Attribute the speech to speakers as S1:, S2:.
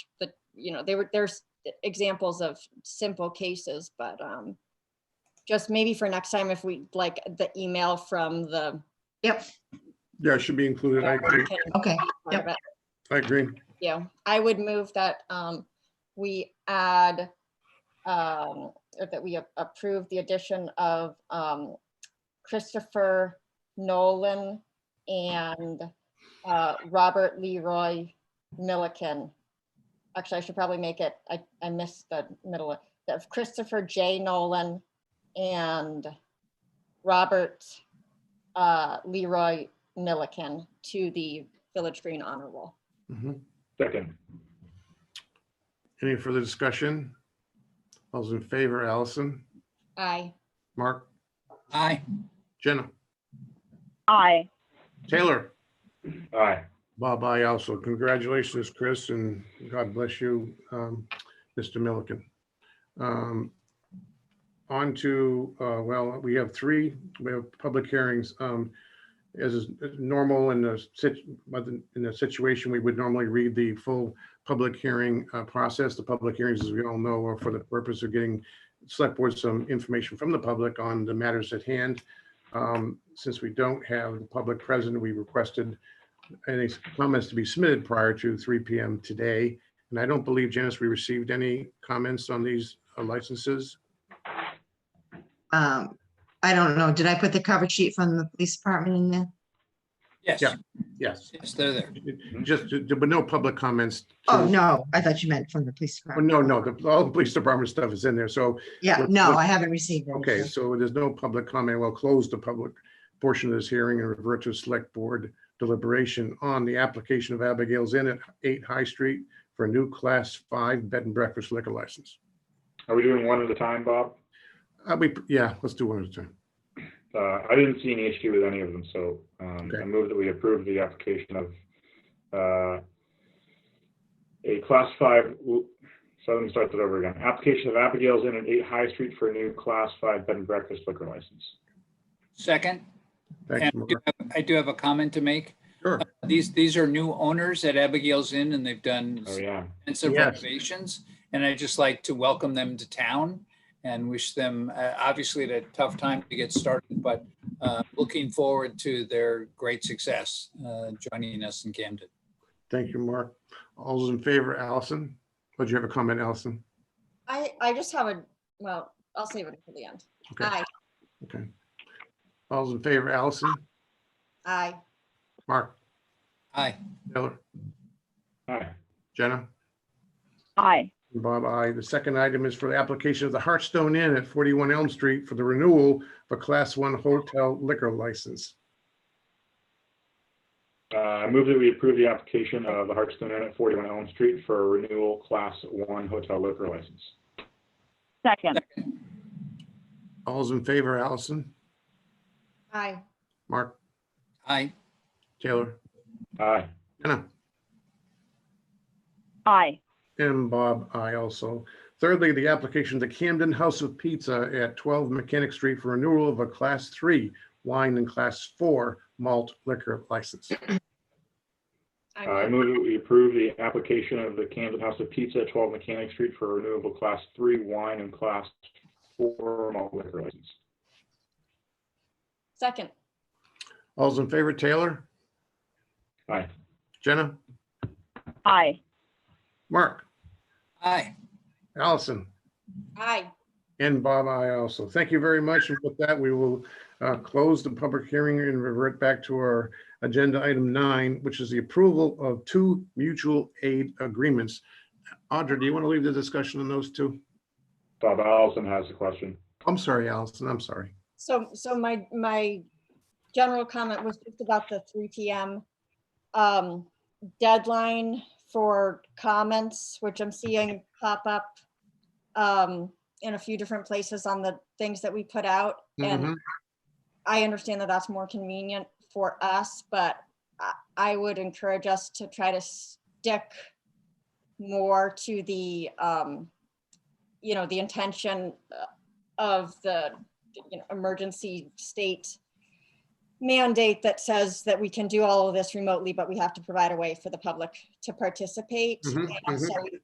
S1: you know, they were, there's examples of simple cases, but um, just maybe for next time, if we, like, the email from the.
S2: Yeah, it should be included. I agree.
S3: Okay,
S1: Part of it.
S2: I agree.
S1: Yeah, I would move that um, we add, um, or that we a- approve the addition of um, Christopher Nolan and uh, Robert Leroy Milliken. Actually, I should probably make it, I, I missed the middle one, of Christopher J. Nolan and Robert uh, Leroy Milliken to the Village Green Honor Roll.
S2: Mhm.
S4: Second.
S2: Any further discussion? All those in favor, Allison,
S1: Aye.
S2: Mark,
S5: Aye.
S2: Jenna,
S6: Aye.
S2: Taylor,
S4: Aye.
S2: Bob, I also. Congratulations, Chris, and God bless you, um, Mr. Milliken. Um, On to, uh, well, we have three, we have public hearings. um, As is normal in the sit, in the situation, we would normally read the full public hearing uh, process. The public hearings, as we all know, are for the purpose of getting select board some information from the public on the matters at hand. Um, Since we don't have the public present, we requested any comments to be submitted prior to 3 PM today. And I don't believe, Janice, we received any comments on these uh, licenses.
S3: Um, I don't know, did I put the cover sheet from the police department in there?
S5: Yes,
S2: Yeah. Yes,
S5: yes, they're there.
S2: just, there were no public comments. to-
S3: Oh, no, I thought you meant from the police
S2: Oh,
S3: department.
S2: No, no, the- all the police department stuff is in there. So,
S3: Yeah,
S2: what-
S3: no,
S2: what-
S3: I haven't received it.
S2: okay, so there's no public comment. We'll close the public portion of this hearing and revert to select board deliberation on the application of Abigail's Inn at 8 High Street for a new Class 5 bed and breakfast liquor license.
S4: Are we doing one at a time, Bob?
S2: Uh, we, yeah, let's do one at a time.
S4: Uh, I didn't see any issue with any of them, so, um,
S2: Okay.
S4: I move that we approve the application of, uh, a class five, oop, so let me start that over again. Application of Abigail's Inn at eight High Street for a new class five bed and breakfast liquor license.
S5: Second, and
S2: Thanks,
S5: I do
S2: Mark.
S5: have- I do have a comment to make. Uh,
S2: Sure.
S5: These, these are new owners at Abigail's Inn and they've done
S4: Oh, yeah.
S5: extensive
S2: Yes.
S5: renovations. And I'd just like to welcome them to town and wish them, uh, obviously, at a tough time to get started, but uh, looking forward to their great success uh, joining us in Camden.
S2: Thank you, Mark. All those in favor, Allison? Would you have a comment, Allison?
S1: I, I just have a, well, I'll save it for the end.
S2: Okay.
S1: Aye,
S2: Okay. All those in favor, Allison,
S1: aye,
S2: Mark,
S5: Aye.
S2: Taylor,
S4: Aye.
S2: Jenna,
S6: Aye.
S2: and Bob, I. The second item is for the application of the Hearthstone Inn at 41 Elm Street for the renewal of a Class 1 hotel liquor license.
S4: Uh, I move that we approve the application of the Hartstone Inn at forty-one Elm Street for a renewal class one hotel liquor license.
S6: Second.
S2: All those in favor, Allison,
S1: aye.
S2: Mark,
S5: Aye.
S2: Taylor,
S4: Aye.
S2: Jenna?
S6: Aye.
S2: And Bob, I also. Thirdly, the application of the Camden House of Pizza at 12 Mechanic Street for renewal of a Class 3 wine and Class 4 malt liquor license.
S1: I
S4: Uh, I
S1: move-
S4: move that we approve the application of the Camden House of Pizza, at 12 Mechanic Street for a renewable class three wine and class four malt liquor license.
S1: Second,
S2: All's in favor, Taylor,
S4: Aye.
S2: Jenna,
S6: Aye.
S2: Mark,
S5: Aye.
S2: Allison,
S1: aye.
S2: and Bob, I also. Thank you very much. And with that, we will uh, close the public hearing and revert back to our agenda item nine, which is the approval of two mutual aid agreements. Audra, do you want to leave the discussion on those two?
S4: Bob Allison has a question.
S2: I'm sorry, Allison, I'm sorry.
S1: So, so my, my general comment was just about the three PM um, deadline for comments, which I'm seeing pop up um, in a few different places on the things that we put out. And
S2: Mhm.
S1: I understand that that's more convenient for us, but I, I would encourage us to try to stick more to the, um, you know, the intention uh, of the you know, emergency state mandate that says that we can do all of this remotely, but we have to provide a way for the public to participate.
S2: Mhm,
S1: And so